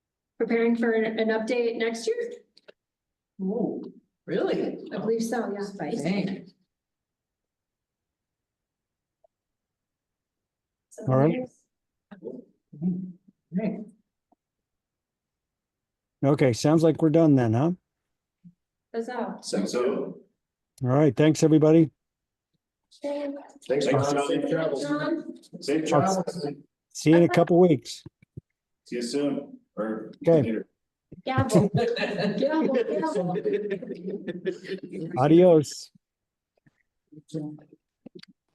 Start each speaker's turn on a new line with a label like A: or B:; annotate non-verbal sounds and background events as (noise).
A: preparing for an an update next year?
B: Ooh, really?
A: I believe so, yeah.
B: Dang.
C: All right.
B: Great.
A: (laughs)
C: Okay, sounds like we're done then, huh? All
A: That's all.
D: So, so,
C: right, thanks, everybody.
D: thanks.
A: John,
D: Ron. Safe travels. Safe travels.
C: See you in a couple weeks.
D: See you soon, or.
C: Okay.
D: later.
A: Gavel,
B: (laughs)
A: gavel, gavel.
C: Adios.